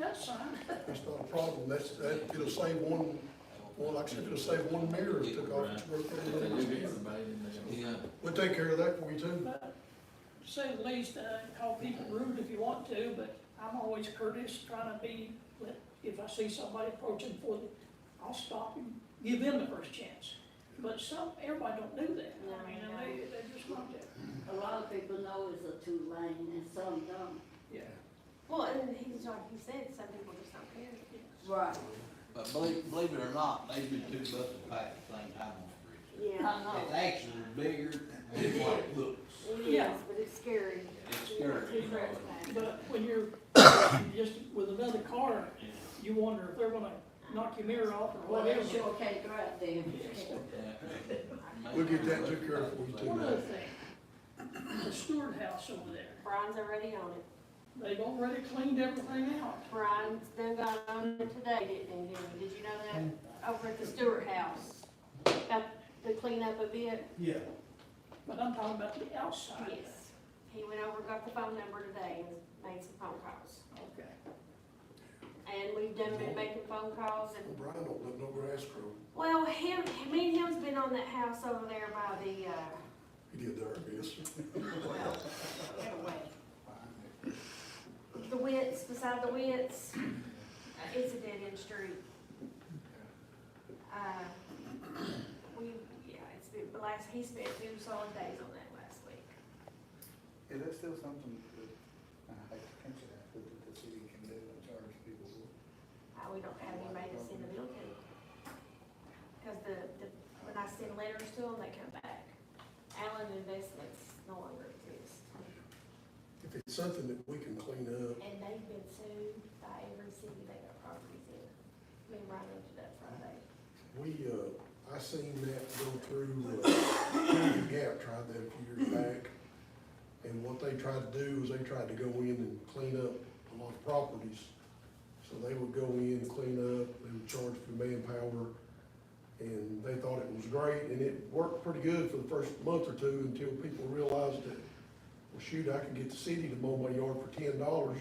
that's fine. That's not a problem, that's, that, it'll save one, well, like I said, it'll save one mirror if it took off its Uh, rotation. Yeah, We'll take care of that for you too. But to say the least, uh, call people rude if you want to, but I'm always courteous, trying to be, but if I see somebody approaching for the, I'll stop and give them the first chance. But some, everybody don't do that. I mean, and they, they just want to, A lot of people know it's a two lane and some don't. yeah. Well, and he's like, he said, some people just don't care. Right. but believe, believe it or not, they've been two buses packed at the same time on the bridge. I know. It's actually bigger than what it looks. It is, Yeah. but it's scary. It's scary, you know. But when you're just with another car, you wonder if they're gonna knock your mirror off or Well, whatever. they sure can't drive them. We'll get that took care of for you One other too. thing, the Stewart House over there, Brian's already on it. they've already cleaned everything out. Brian's done got on it today, didn't he? Did you know that? Over at the Stewart House. About the cleanup a bit. Yeah, But I'm talking about the outside. Yes. He went over, got the phone number today and made some phone calls. Okay. And we've done been making phone calls and Well, Brian don't live no grass grow. Well, him, me and him's been on that house over there by the, uh, He did there, I guess. well, get away. The Wits, beside the Wits, it's a dead end street. Uh, we, yeah, it's been, the last, he spent two solid days on that last week. Is that still something that, uh, I hate to think of that, but that the city can do and charge people for? Uh, we don't have anybody to send a bill to. Cause the, the, when I send letters to them, they come back. Allen Investments no longer exists. If it's something that we can clean up, And they've been sued by every city they got properties in. I mean, right into that Friday. we, uh, I seen that go through, uh, Gap tried that a few years back. And what they tried to do is they tried to go in and clean up a lot of properties. So they would go in and clean up, they would charge for manpower. And they thought it was great, and it worked pretty good for the first month or two until people realized that, well, shoot, I can get the city to mow my yard for ten dollars,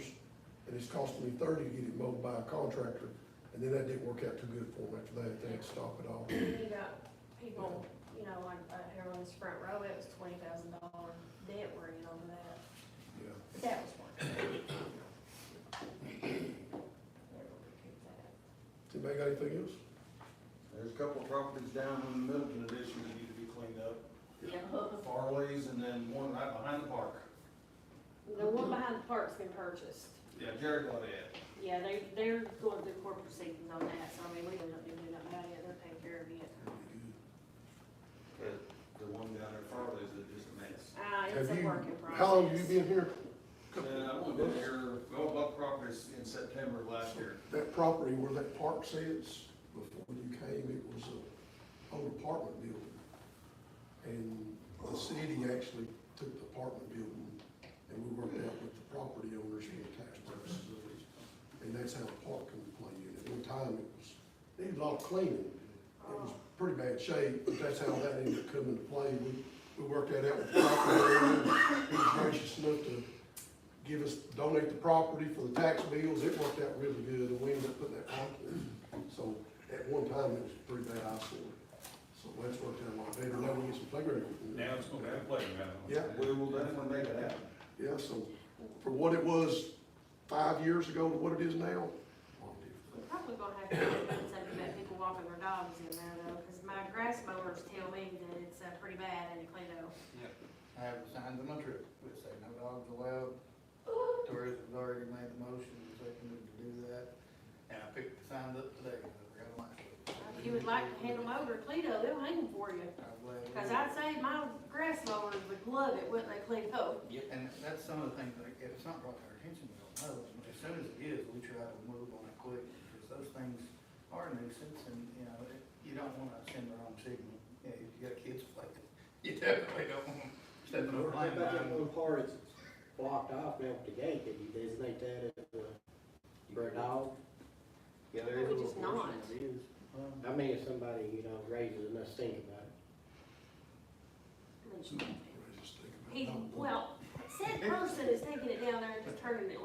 and it's costing me thirty to get it mowed by a contractor. And then that didn't work out too good for them after that, they had to stop it all. You got people, you know, like, uh, here on this front row, it was twenty thousand dollar debt worrying over that. Yeah. That was one. Never recoup that. Does anybody got anything else? There's a couple of properties down in the Middleton addition that need to be cleaned up. Yeah. Farley's and then one right behind the park. The one behind the park's been purchased. Yeah, Jared got it. Yeah, they, they're going through court proceedings on that, so I mean, we don't do nothing about it, they're taking care of it. But the one down there, Farley's, is just a mess. Uh, it's Have a you? work in progress. How long have you been here? And Uh, I went down there, well, bought properties in September of last year. That property where that park sits, before you came, it was a old apartment building. And the city actually took the apartment building and we worked out with the property owners for the tax purposes of it. And that's how the park came to play in. At one time, it was, needed a lot of cleaning. It was pretty bad shape, but that's how that ended up coming to play. We, we worked that out with the property owner. He was gracious enough to give us, donate the property for the tax bills, it worked out really good, and we ended up putting that park in. So, at one time, it was a pretty bad eyesore, so that's worked out a lot better, now we get some playground. equipment. Now it's gonna be a playground. Yeah, We will definitely make it happen. yeah, so, for what it was five years ago to what it is now, a lot different. We're Probably gonna have to do something about people walking their dogs in there though, cause my grass mowers tell me that it's, uh, pretty bad in Toledo. I have the signs on my truck, which say no dogs allowed. Tourism's already made the motion, it's like we need to do that. And I picked the signs up today, and I forgot my. If you would like to hand them over to Toledo, they'll hang them for you, I'm glad we cause did. I'd say my grass mowers would love it, wouldn't they, Toledo? And that's some of the things, like, if it's not brought to our attention, we don't know. And As soon as it is, we try to move on it quick, because those things are a nuisance, and, you know, it- you don't wanna send the wrong signal. You know, if you got kids playing, you definitely don't want them stepping on a How line. about that one part that's blocked off out the gate, can you designate that as a, for a dog? Yeah, there is a Which is little portion not. It is. I mean, if somebody, you know, raises and us think about it. Just think about it. He, well, said person is taking it down there and just turning it